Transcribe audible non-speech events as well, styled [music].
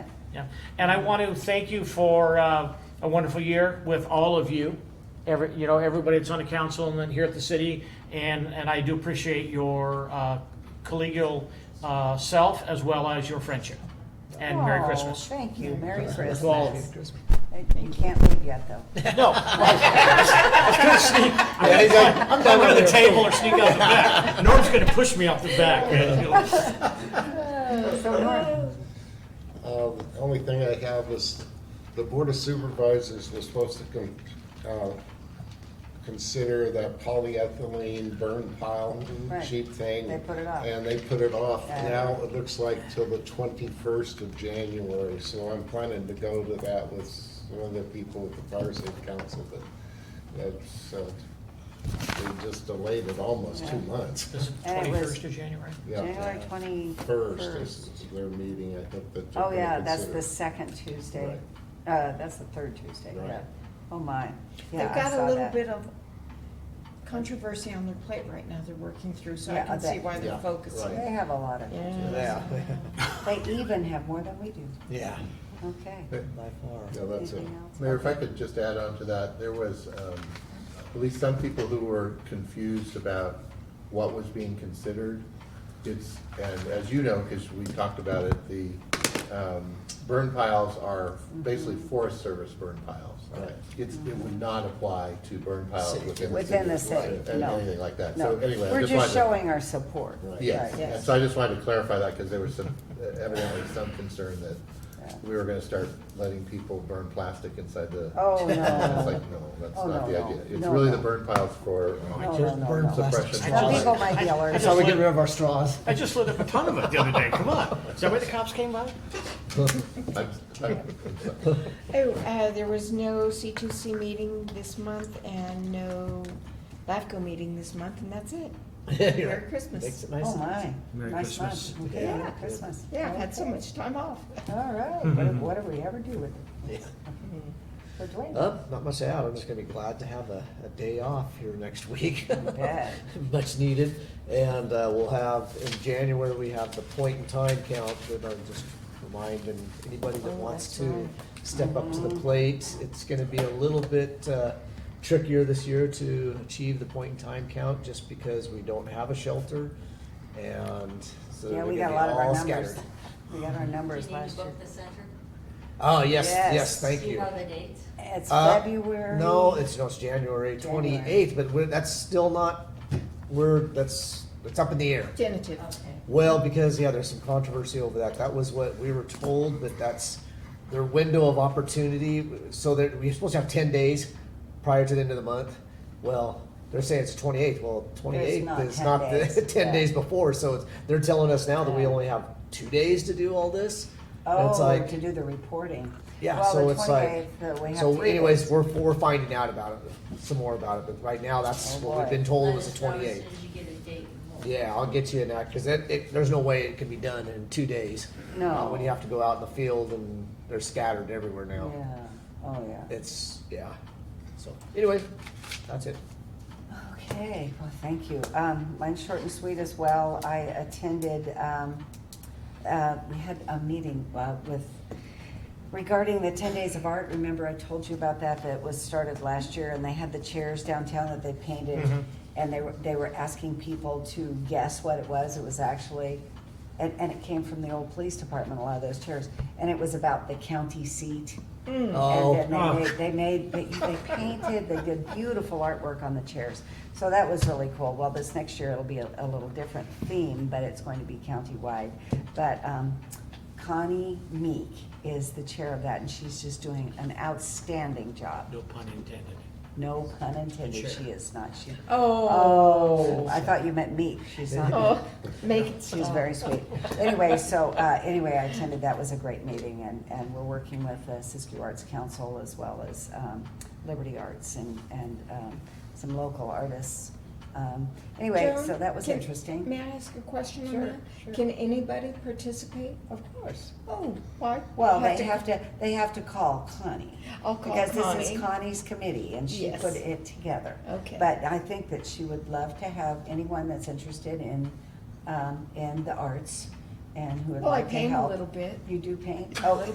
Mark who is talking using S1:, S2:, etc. S1: Yeah. And I want to thank you for uh, a wonderful year with all of you. Every, you know, everybody that's on the council and then here at the city. And, and I do appreciate your uh, collegial uh, self as well as your friendship. And Merry
S2: Oh,
S1: Christmas.
S2: Thank you, Merry Christmas.
S1: To all of you.
S2: I- You can't leave yet, though.
S1: [laughs] No. I'm going to the table or sneak out the
S3: [laughs]
S1: back. Norm's going to push me out the back. man.
S2: So Norm,
S3: Uh, The only thing I have is, the Board of Supervisors was supposed to con- uh, consider that polyethylene burn pile
S2: Right.
S3: cheap thing.
S2: They put it off.
S3: And they put it off.
S2: Yeah.
S3: Now, it looks like till the 21st of January, so I'm planning to go to that with one of the people at the Fire Safe Council, but that's, uh, they just delayed it almost two months.
S1: This is
S2: And it was-
S1: 21st of January.
S3: Yeah.
S2: January
S3: First is
S2: 21st.
S3: their meeting, I think, that they're
S2: Oh, yeah,
S3: gonna
S2: that's
S3: consider.
S2: the second Tuesday.
S3: Right.
S2: Uh, that's the third Tuesday,
S3: Right.
S2: yeah. Oh, my. Yeah,
S4: They've
S2: I
S4: got
S2: saw
S4: a little
S2: that.
S4: bit of controversy on their plate right now they're working through, so
S2: Yeah,
S4: I
S2: I
S4: can see
S2: bet.
S4: why they're
S3: Yeah,
S4: focusing.
S3: right.
S2: They have a lot of,
S4: Yeah.
S5: Yeah,
S2: they even have more than we do.
S5: yeah,
S2: Okay.
S5: by far.
S3: Yeah, that's it.
S2: Anything else?
S6: Mayor, if I could just add on to that, there was um, at least some people who were confused about what was being considered. It's, and as you know, because we talked about it, the um, burn piles are basically Forest Service burn piles.
S3: Right.
S6: It's, it would not apply to burn piles
S5: City.
S6: within the city.
S2: Within the
S6: right,
S2: city,
S6: and
S2: no.
S6: Anything like that.
S2: No,
S6: So anyway, I
S2: we're
S6: just wanted
S2: just
S6: to.
S2: showing our support.
S3: Right.
S6: Yes,
S2: Right.
S6: and so I just wanted to clarify that because there was some, evidently some concern that
S2: Yeah.
S6: we were gonna start letting people burn plastic inside the.
S2: Oh, no.
S6: And It's like, no, that's
S2: Oh,
S6: not
S2: no,
S6: the
S2: no.
S6: idea. It's
S2: No,
S6: really
S2: no.
S6: the burn piles for
S2: No, Oh, no,
S6: just
S2: no,
S6: burn
S2: no.
S6: suppression.
S2: Some people might be
S6: That's
S2: allergic.
S6: how we get rid of our straws.
S1: I just lit up a ton of it the other day. Come on. Is that where the cops came by?
S6: I'm- I'm-
S4: Oh, uh, there was no C2C meeting this month and no LAFCO meeting this month, and that's
S5: [laughs]
S4: it.
S6: [laughs]
S4: Merry Christmas.
S5: Makes it nice.
S2: Oh, my.
S1: Merry
S2: Nice month.
S1: Christmas.
S2: Okay,
S4: Yeah.
S2: Merry Christmas.
S4: Yeah, I've had so
S2: Okay.
S4: much time off.
S2: All right, what do- what do we ever do with it?
S5: Yeah.
S2: Mm-hmm. For Dwayne?
S5: Uh, not much to add. I'm just gonna be glad to have a, a day off here next [laughs] week.
S2: bet.
S5: [laughs] Much needed. And, uh, we'll have, in January, we have the point in time count, that I'm just reminding anybody that
S4: Oh,
S5: wants
S4: that's
S5: to
S4: right.
S5: step up to
S2: Mm-hmm.
S5: the plate. It's gonna be a little bit, uh, trickier this year to achieve the point in time count, just because we don't have a shelter. And so
S2: Yeah,
S5: we're
S2: we got a
S5: gonna be
S2: lot of our
S5: uh, all
S2: numbers.
S5: scattered.
S2: We got our
S7: Do you
S2: numbers
S7: need to
S2: last year.
S7: book the center?
S5: Oh, yes,
S2: Yes.
S5: yes, thank
S7: Do you
S5: you.
S7: know the dates?
S2: It's
S5: Uh,
S2: February.
S5: No, it's, no, it's
S2: January.
S5: January twenty-eighth, but we're, that's still not, we're, that's, it's up in the air.
S4: Genitive.
S7: Okay.
S5: Well, because, yeah, there's some controversy over that. That was what we were told, but that's their window of opportunity. So that we're supposed to have ten days prior to the end of the month. Well, they're saying it's twenty-eighth. Well, twenty-eighth
S2: not
S5: is
S2: 10
S5: not
S2: days.
S5: the [laughs] ten
S2: Yeah.
S5: days before, so it's, they're telling us now that we
S2: Yeah.
S5: only have two days to do all this. And it's
S2: Oh,
S5: like-
S2: to do the reporting.
S5: yeah,
S2: Well,
S5: so
S2: the
S5: it's like,
S2: 28th, uh, we have
S5: so
S2: three
S5: anyways,
S2: days.
S5: we're, we're finding out about it, some more about it, but right now, that's
S2: Oh,
S5: what we've
S2: boy.
S5: been
S7: Let
S5: told was
S7: us
S5: the
S7: know as
S5: twenty-eighth.
S7: soon as you get a date and we'll-
S5: Yeah, I'll get you in that, cause it, it, there's no way it can be done in two days.
S2: No.
S5: Uh, When you have to go out in the field and they're scattered everywhere now.
S2: Yeah, oh, yeah.
S5: It's, yeah, so, anyway, that's it.
S2: Okay, well, thank you. Um, mine's short and sweet as well. I attended, um, uh, we had a meeting, uh, with, regarding the ten days of art. Remember I told you about that, that was started last year and they had the chairs downtown that they painted.
S1: Mhm.
S2: And they were, they were asking people to guess what it was. It was actually, and, and it came from the old police department, a lot of those chairs. And it was about the county seat.
S4: Mm.
S5: Oh.
S2: And
S1: Oh.
S2: then they made, they made, they, they painted, they did beautiful artwork on the chairs. So that was really cool. Well, this next year it'll be a, a little different theme, but it's going to be countywide. But, um, Connie Meek is the chair of that and she's just doing an outstanding job.
S1: No pun intended.
S2: No pun intended,
S1: Chair.
S2: she is not, she,
S4: Oh.
S2: oh, I thought you meant Meek, she's not. [laughs]
S4: Oh, make it
S2: She was
S4: stop.
S2: very [laughs] sweet. Anyway, so, uh, anyway, I attended, that was a great meeting, and, and we're working with the Siskiyou Arts Council as well as, um, Liberty Arts and, and, um, some local artists. Um, anyway, so
S4: Joan,
S2: that was
S4: can-
S2: interesting.
S4: May I ask a question on
S2: Sure,
S4: that?
S2: sure.
S4: Can anybody participate?
S2: Of course.
S4: Oh, why?
S2: Well, they have to, they have to call Connie.
S4: I'll call
S2: Because this
S4: Connie.
S2: is Connie's committee, and she
S4: Yes.
S2: put it together.
S4: Okay.
S2: But I think that she would love to have anyone that's interested in, um, in the arts and who would
S4: Well, I
S2: like to
S4: paint a
S2: help.
S4: little bit.
S2: You do paint? Oh,